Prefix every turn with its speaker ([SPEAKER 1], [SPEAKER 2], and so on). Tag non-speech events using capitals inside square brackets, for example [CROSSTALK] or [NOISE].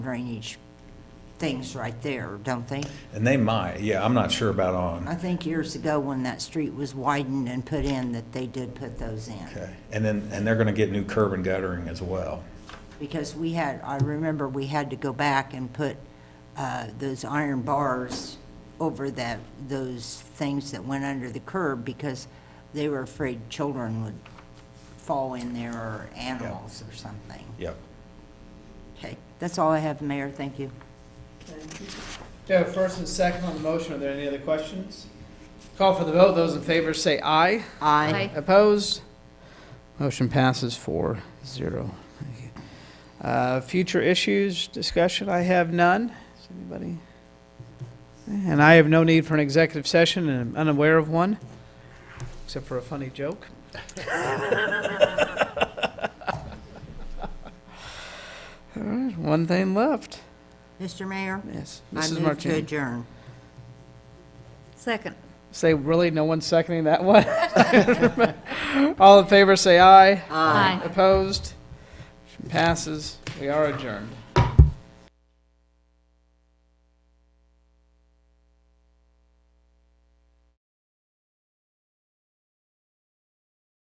[SPEAKER 1] drainage things right there, don't they?
[SPEAKER 2] And they might, yeah, I'm not sure about
[SPEAKER 1] I
[SPEAKER 2] on.
[SPEAKER 1] think years ago, when that street was widened and put in, that they did put those in.
[SPEAKER 2] Okay, and then, and they're gonna get new curb and guttering as well.
[SPEAKER 1] Because we had, I remember we had to go back and put uh, those iron bars over that, those things that went under the curb because they were afraid children would fall in there or animals or something.
[SPEAKER 2] Yep.
[SPEAKER 1] Okay, that's all I have, Mayor, thank you.
[SPEAKER 3] We have a first and second on the motion. Are there any other questions? Call for the vote. Those in favor say aye.
[SPEAKER 1] Aye.
[SPEAKER 3] Opposed? Motion passes four zero. Uh, Future issues, discussion, I have none. Does anybody? And I have no need for an executive session and I'm unaware of one, except for a
[SPEAKER 1] [LAUGHS]
[SPEAKER 3] funny joke. All right, one thing left.
[SPEAKER 1] Mr. Mayor?
[SPEAKER 3] Yes,
[SPEAKER 1] I
[SPEAKER 3] Mrs.
[SPEAKER 1] move to
[SPEAKER 3] Martini.
[SPEAKER 1] adjourn.
[SPEAKER 4] Second.
[SPEAKER 3] Say, really, no one's seconding that one? [LAUGHS] All in favor, say aye.
[SPEAKER 4] Aye.
[SPEAKER 3] Opposed? Motion Passes. We are adjourned.